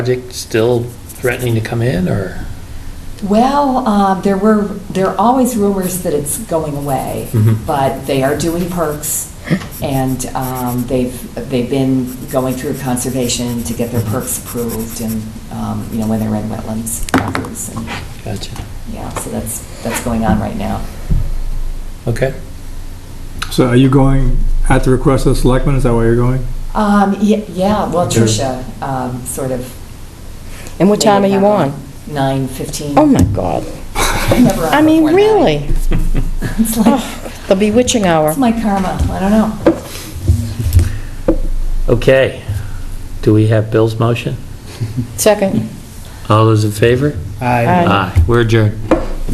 project still threatening to come in, or? Well, uh, there were, there are always rumors that it's going away, Mhm. but they are doing perks, and um, they've, they've been going through conservation to get their perks approved, and, um, you know, when they're in wetlands, properties, and, Gotcha. yeah, so that's, that's going on right now. Okay. So are you going at the request of the selectmen, is that where you're going? Um, ye- Yeah, well, Sure. Tricia um, sort of. And what time are you on? Nine fifteen. Oh, my God. I mean, really? It's like, Oh, The bewitching hour. it's my karma, I don't know. Okay. Do we have Bill's motion? Second. All those in favor? Aye. Aye. We're adjourned.